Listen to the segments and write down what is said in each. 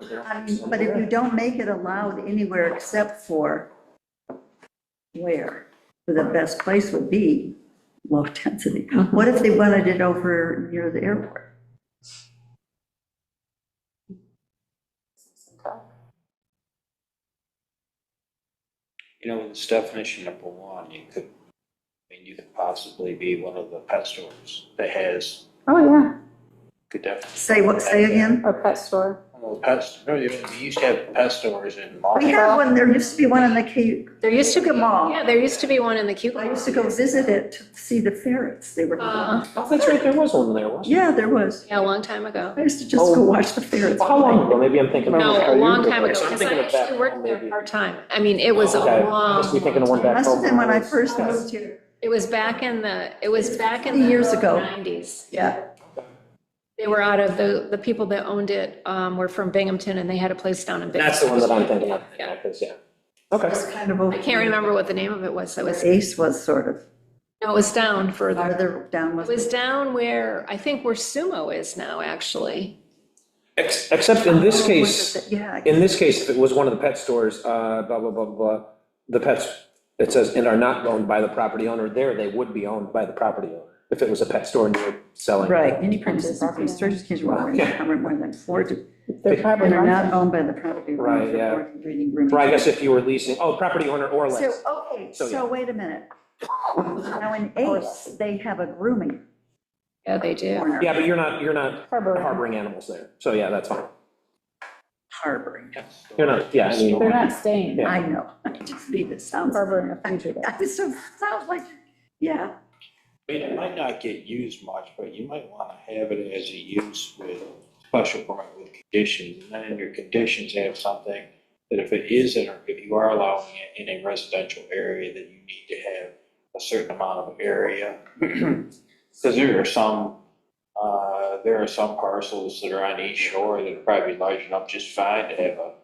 Um, But if you don't make it allowed anywhere except for where, where the best place would be low density. What if they wanted it over near the airport? You know, with this definition number one, you could, I mean, you could possibly be one of the pet stores that has, Oh, yeah, could definitely. Say what, say again? or pet store. Well, pet, st- no, you you used to have pet stores in malls. We had one, there used to be one in the Cape, There used to be, Mall. yeah, there used to be one in the I cubicle. used to go visit it to see the ferrets, they were, Uh, Oh, that's right, there was one there, wasn't yeah, there was. Yeah, a long time ago. I used to just go watch the ferrets. there? How long ago? Maybe I'm thinking. No, a long time ago, I'm because I thinking of that actually worked there maybe. part-time. I mean, it was a Okay, long. must be thinking of one long time. back Must have been when I home. first moved here. It was back in the, it was back in the. Years ago. Nineties. Yeah. They were out of, the, the people that owned it um, were from Binghamton and they had a place down in That's Binghamton. the one that I'm thinking of, Yeah. yeah, 'cause, yeah. Okay. It's kind of. over- I can't remember what the name of it was. That was, Ace was sort of no, it was down further. farther down It was. was down where, I think where Sumo is now, actually. Ex- Except in this Was case, it that- Yeah. in this case, if it was one of the pet stores, uh, blah, blah, blah, blah, blah, the pets, it says, and are not owned by the property owner, there they would be owned by the property owner, if it was a pet store and you were selling. Right, any premises, property, storage contains more than, Yeah. more than four, to- They- and are not owned by the property. owner Right, for yeah. more than Reading room. Or I guess if you were leasing, oh, property owner or So, less, okay, So, so yeah. wait a minute. Now in Ace, they have a grooming Yeah, they do. corner yeah, but you're not, you're not harboring animals there, so yeah, that's fine, harboring. you're not, yeah, I mean. They're not staying, Yeah. I know, I just need it sounds, harboring a future there. I just, it sounds like, yeah, I mean, it might not get used much, but you might want to have it as a use with special permit with conditions. And then in your conditions, have something that if it is, in a- if you are allowing it in a residential area, that you need to have a certain amount of area. Because there are some, uh, there are some parcels that are on East Shore that are probably large enough just fine to have a,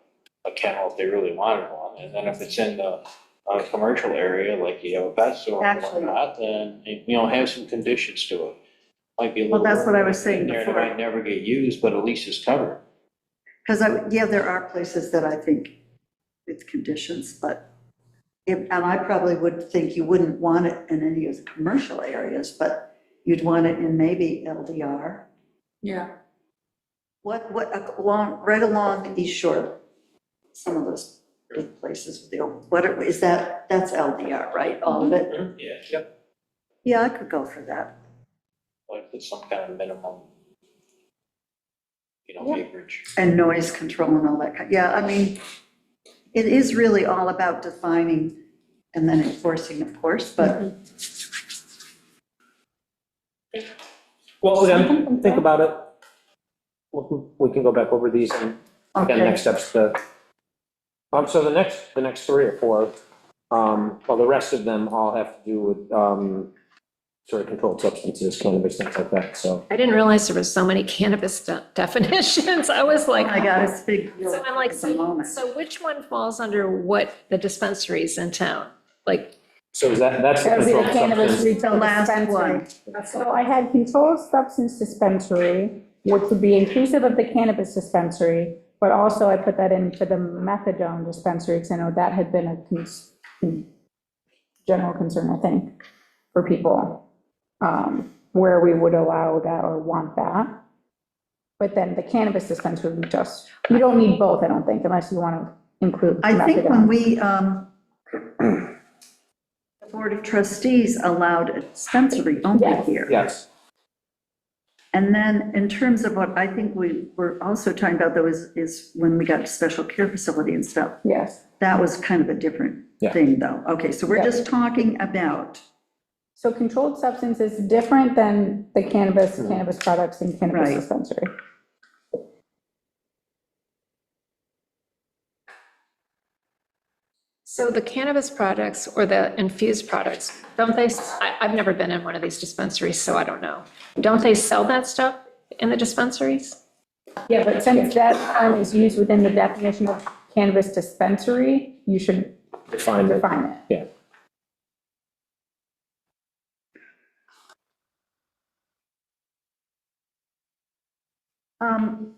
a kennel if they really wanted one. And then if it's in the a commercial area, like you have a pet store and Actually- whatnot, then, you know, have some conditions to it. Might be a Well, little. that's what I was saying in there that before. Might never get used, but at least it's covered. because I, yeah, there are places that I think with conditions, but, if- and I probably would think you wouldn't want it in any of the commercial areas, but you'd want it in maybe LDR. Yeah. What, what, along, right along the East Shore, some of those big places, with the old- what, are- is that, that's LDR, right, all of it? Yeah, yep. Yeah, I could go for that. Like with some kind of minimum, you know, acreage. And noise control and all that, kind. yeah, I mean, it is really all about defining and then enforcing, of course, but Well, again, think about it. We can- We can go back over these and, Mm-hmm. again, Okay. next steps the, um, so the next, the next three or four, um, well, the rest of them all have to do with, um, sort of controlled substances, cannabis, things like that, so. I didn't realize there was so many cannabis de- definitions. I was like. I got it's big. So I'm like, It's a moment. so which one falls under what the dispensaries in town? Like, So is that, that's the That was controlled the cannabis substance. retail The last dispensary. So I had controlled substance dispensary, which would be inclusive of the cannabis dispensary, but also I put that in for the methadone dispensary, because I know that had been a cons- con- general concern, I think, for people, um, where we would allow that or want that. But then the cannabis dispensary would be just, you don't need both, I don't think, unless you want to include I think when methadone. we, um, the Board of Trustees allowed a dispensary only Yes. here. Yes, And then in terms of what I think we were also talking about though is, is when we got to special care facility and stuff, Yes. that was kind of a different Yeah. thing though. Okay, so we're Yeah. just talking about, So controlled substance is different than the cannabis, cannabis products and cannabis Right. dispensary. so the cannabis products or the infused products, don't they, I, I've never been in one of these dispensaries, so I don't know. Don't they sell that stuff in the dispensaries? Yeah, but since that term is used within the definition of cannabis dispensary, you should define it, define it. yeah. um,